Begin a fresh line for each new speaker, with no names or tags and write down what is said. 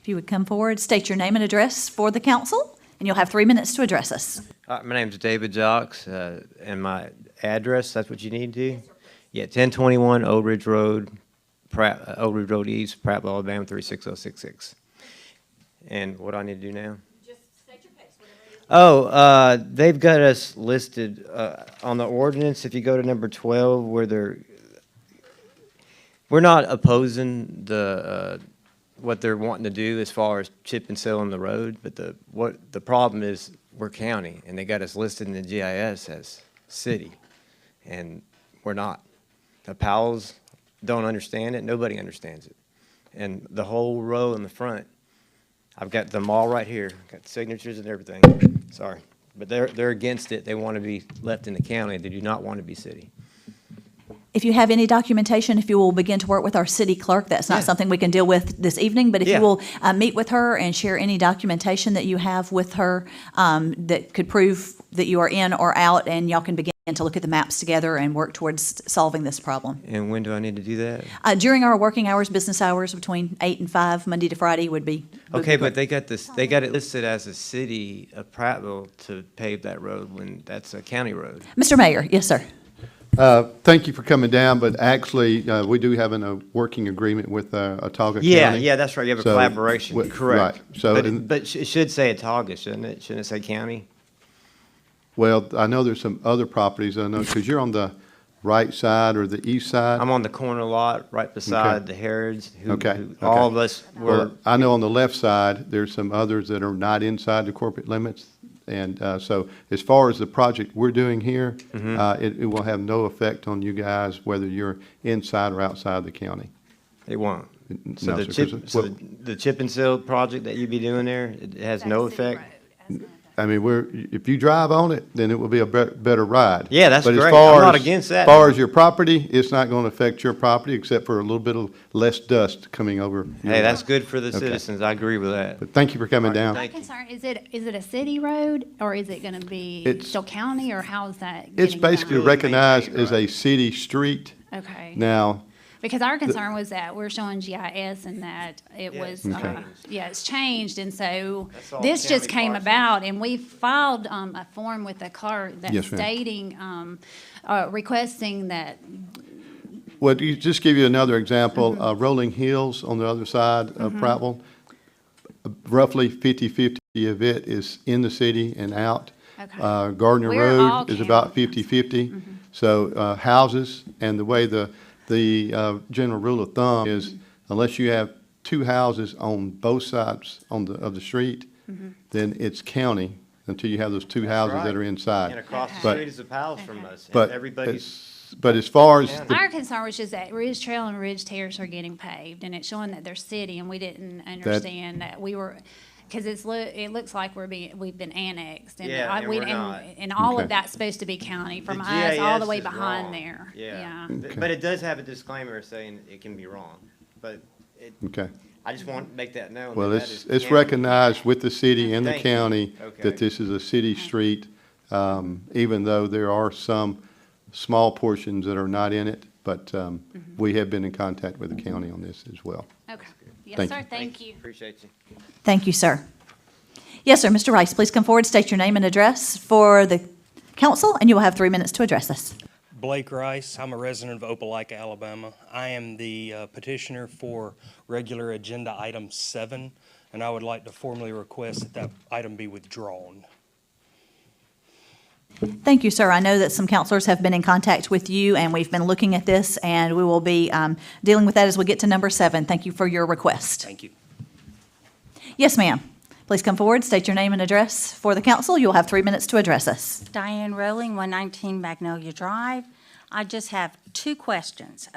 If you would come forward, state your name and address for the council, and you'll have three minutes to address us.
All right, Uh, my name's David Jocks, uh, and my address, that's what you need to? Yeah, ten twenty-one Old Ridge Road, Pratt, uh, Old Ridge Road East, Prattville, Alabama, three six oh six six. And what do I need to do now? Oh, uh, they've got us listed, uh, on the ordinance, if you go to number twelve, where they're, we're not opposing the, uh, what they're wanting to do as far as chip and seal on the road, but the, what, the problem is, we're county, and they got us listed in the GIS as city, and we're not. The Powells don't understand it, nobody understands it. And the whole row in the front, I've got them all right here, got signatures and everything, sorry. But they're, they're against it, they want to be left in the county, they do not want to be city.
If you have any documentation, if you will begin to work with our city clerk, that's not
Yeah.
something we can deal with this evening, but if you
Yeah.
will uh, meet with her and share any documentation that you have with her um, that could prove that you are in or out, and y'all can begin to look at the maps together and work towards solving this problem.
And when do I need to do that?
Uh, During our working hours, business hours, between eight and five, Monday to Friday would be. would be
Okay,
great.
but they got this, they got it listed as a city of Prattville to pave that road when that's a county road.
Mr. Mayor, yes, sir.
Uh, Thank you for coming down, but actually, uh, we do have an, a working agreement with uh, Otaga County.
Yeah, yeah, that's right, you have a
So,
collaboration,
wh-
correct.
right. So,
But,
and-
it- but it sh- it should say Otaga, shouldn't it? Shouldn't it say county?
Well, I know there's some other properties, I know, because you're on the right side or the east side.
I'm on the corner lot, right beside the Harrods. who-
Okay,
who All
okay.
of us were,
Well, I know on the left side, there's some others that are not inside the corporate limits. And uh, so as far as the project we're doing here,
Mm-hmm.
uh, it it will have no effect on you guys, whether you're inside or outside the county.
it won't.
N-
So
no,
the
sir, 'cause
chip, so
what-
the the chip and seal project that you be doing there, it it has no effect?
I mean, we're, if you drive on it, then it will be a bet- better ride.
Yeah, that's
But as
great.
far
I'm not
as-
against that.
As far as your property, it's not going to affect your property except for a little bit of less dust coming over. your-
Hey, that's good for the
Okay.
citizens, I agree with that.
But thank you for coming down.
thank-
My concern, is it, is it a city road or is it going to be
It's-
still county or how is that?
It's
getting done?
basically
Really maintained,
recognized as
right.
a city street
Okay.
now.
Because our concern was that we're showing GIS and that it
Yeah, it's
was, uh,
changed.
yeah, it's changed. And so
That's all
this just
county
came
parcels.
about and we filed um, a form with the clerk that's
Yes, ma'am.
stating, um, uh, requesting that,
Well, you, just give you another
Mm-hmm.
example, uh, Rolling Hills on the other side of Prattville, roughly 50/50 of it is in the city and out.
Okay.
Uh, Gardner
We're all
Road is about
county.
50/50.
Mm-hmm.
So, uh, houses, and the way the, the, uh, general rule of thumb is
Mm-hmm.
unless you have two houses on both sides on the, of the street,
Mm-hmm.
then it's county until you have those two houses
right.
that are inside.
And across the
But-
street is the palace from us, and
But,
everybody's
it's- but as far as the
our concern was just that Ridge Trail and Ridge Terrace are getting paved and it's showing that they're city and we didn't understand that we were, because it's, loo- it looks like we're being, we've been annexed. and
Yeah,
I-
and
we-
we're not.
And all
Okay.
of that's supposed to be county from
The
us all the
GIS
way
is wrong.
behind there.
Yeah,
Yeah.
Th- but it does have a disclaimer saying it can be wrong, but it,
Okay.
I just want to make that known.
Well,
that that is
it's, it's
canon.
recognized with the city and the
Thank you.
county
Okay.
that this is a city street, um, even though there are some small portions that are not in it, but, um,
Mm-hmm.
we have been in contact with the county on this as well.
Okay. Yes,
Thank
sir.
you.
Thank you.
Appreciate you.
Thank you, sir. Yes, sir, Mr. Rice, please come forward, state your name and address for the council, and you will have three minutes to address us.
Blake Rice. I'm a resident of Opelika, Alabama. I am the uh, petitioner for regular agenda item seven, and I would like to formally request that that item be withdrawn.
Thank you, sir. I know that some counselors have been in contact with you, and we've been looking at this, and we will be um, dealing with that as we get to number seven. Thank you for your request.
Thank you.
Yes, ma'am. Please come forward, state your name and address for the council. You'll have three minutes to address us.
Diane Rowling, 119 Magnolia Drive. I just have two questions.